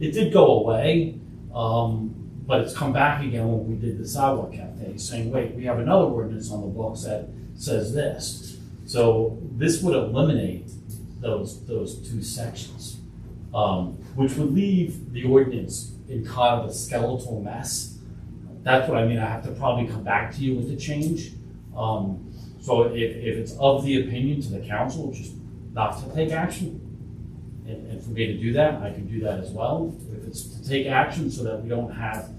It did go away, um, but it's come back again when we did the sidewalk cafe, saying, wait, we have another ordinance on the books that says this. So this would eliminate those, those two sections, um, which would leave the ordinance in kind of a skeletal mess. That's what I mean, I have to probably come back to you with a change. Um, so if, if it's of the opinion to the council, just not to take action, and, and for me to do that, I can do that as well. If it's to take action so that we don't have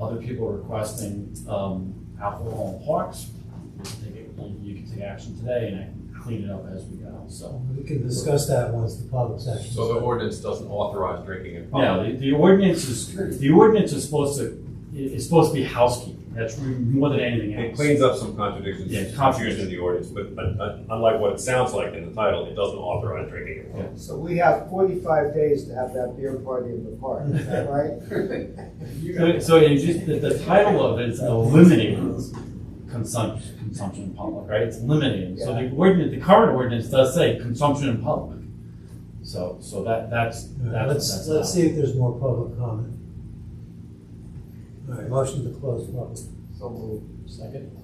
other people requesting, um, alcohol in parks, you can take it- you- you can take action today and I can clean it up as we go, so. We can discuss that once the public session. So the ordinance doesn't authorize drinking in public. Yeah, the, the ordinance is, the ordinance is supposed to, is supposed to be housekeeping, that's more than anything It else. cleans up some contradictions, Yeah, confusion in the ordinance, but, but uh, unlike what it sounds like in the title, it doesn't authorize drinking at all. So we have forty-five days to have that beer party in the park, is that So, right? so it just, the, the title of it is eliminating consumption, consumption in public, right? It's eliminating, so the ordinance, the current ordinance does say consumption in public. So, so that, that's, that's, Alright, Let's, that's. let's see if there's more public comment. All right, motion to close public. So moved. Second.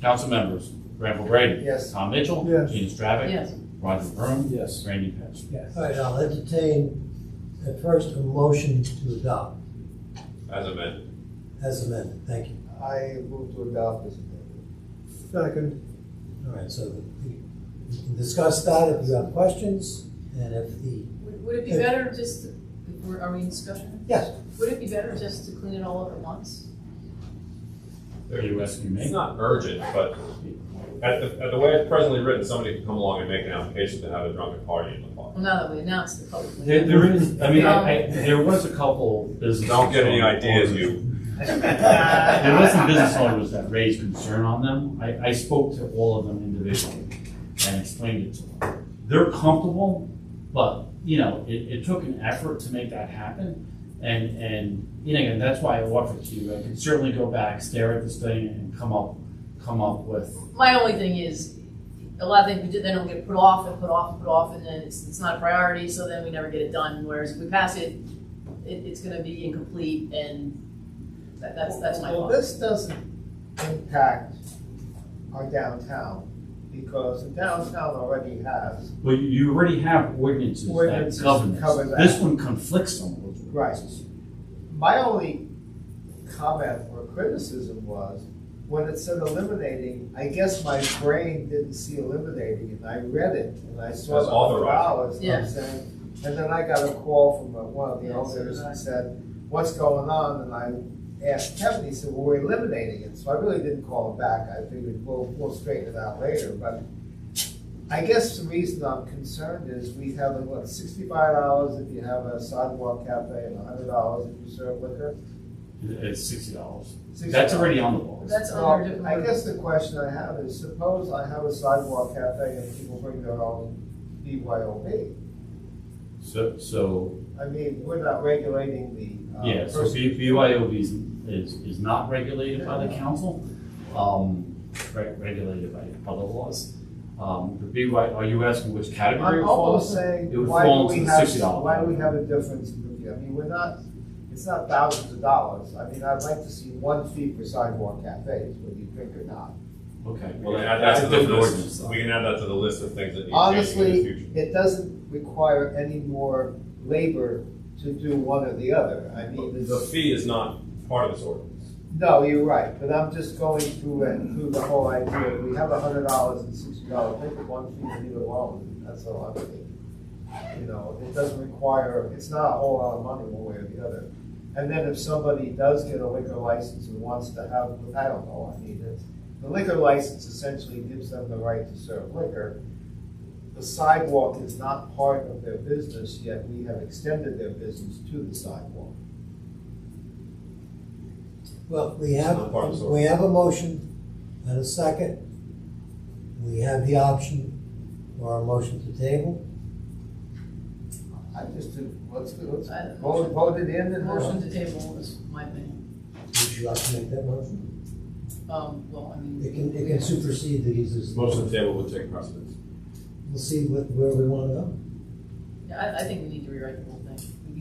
Council members, Randall Brady. Yes. Tom Mitchell. Yes. Gina Stravic. Yes. Roger Vroom. Yes. Randy Pitts. Yes. All right, I'll entertain at first a motion to adopt As amended, as amended. Thank you. I move to adopt this amendment. Second. All right, so we we can discuss that if you have questions and if the, Would would it be better just, to- we're- are we in discussion? yes, Would it be better just to clean it all up at once? Are you asking it's me? not urgent, but at the, at the way it's presently written, somebody could come along and make an application to have a drunken party in the park. Well, now that we announced it publicly. There, there is, I mean, I, I, there was a couple businesses. Don't get any ideas, you, There was some business owners that raised concern on them. I, I spoke to all of them individually and explained it to them. They're comfortable, but, you know, it, it took an effort to make that happen. And, and, you know, and that's why I offered to you, I could certainly go back, stare at this thing and come up, come up with, My only thing is, a lot of things we did, then it'll get put off and put off and put off, and then it's, it's not a priority, so then we never get it done, whereas if we pass it, it, it's gonna be incomplete, and that, that's, that's my Well, thought. this doesn't impact our downtown, because the downtown already has, well, you- you already have ordinances that Ordinances govern cover this. that. This one conflicts on those Right. ordinances. my only comment or criticism was, when it said eliminating, I guess my brain didn't see eliminating, and I read it, and I saw That's the hundred authorized. dollars, and I'm Yeah. saying, and then I got a call from uh, one of the Yeah, so owners did I. and said, what's going on, and I asked Kevin, he said, well, we're eliminating it, so I really didn't call him back, I figured, we'll, we'll straighten it out later, but I guess the reason I'm concerned is we have, like, what, sixty-five dollars if you have a sidewalk cafe, and hundred dollars if you serve liquor? It- It's sixty dollars. $60. That's already on the books. That's under Well, different. uh, I guess the question I have is, suppose I have a sidewalk cafe and people bring their own BYOB. So, so I mean, we're not regulating the. uh, Yeah, so person. B- BYOB is, is, is not regulated by the council, um, re- regulated by other laws. Um, the BY, are you asking which category it I'm falls? almost in? saying, It would why fall do into we the have, sixty dollar. why do we have a difference in review? I mean, we're not, it's not thousands of dollars. I mean, I'd like to see one fee for sidewalk cafes, whether you drink or not. Okay, we well, can add that's that a to the different ordinance. list, though. we can add that to the list of things that need changing in the Honestly, future. it doesn't require any more labor to do one or the other. I mean, But it's. The fee is not part of this ordinance. No, you're right, but I'm just going through and through the whole idea, we have a hundred dollars and sixty dollars, pick one fee and leave it alone, that's all I'm thinking. You know, it doesn't require, it's not a whole lot of money one way or the other. And then if somebody does get a liquor license and wants to have, I don't know, I mean, it's, the liquor license essentially gives them the right to serve liquor. The sidewalk is not part of their business, yet we have extended their business to the sidewalk. well, we Not part of have, the- we have a motion and a second. We have the option for a motion to table. I just, did- let's, let's I- vote, vote it in and. Motion to table is my thing, Would you like to make that motion? um, well, I mean. It can, it can supersede these. This motion to table would take precedence. We'll see what, where we wanna go. Yeah, I, I think we need to rewrite the whole thing.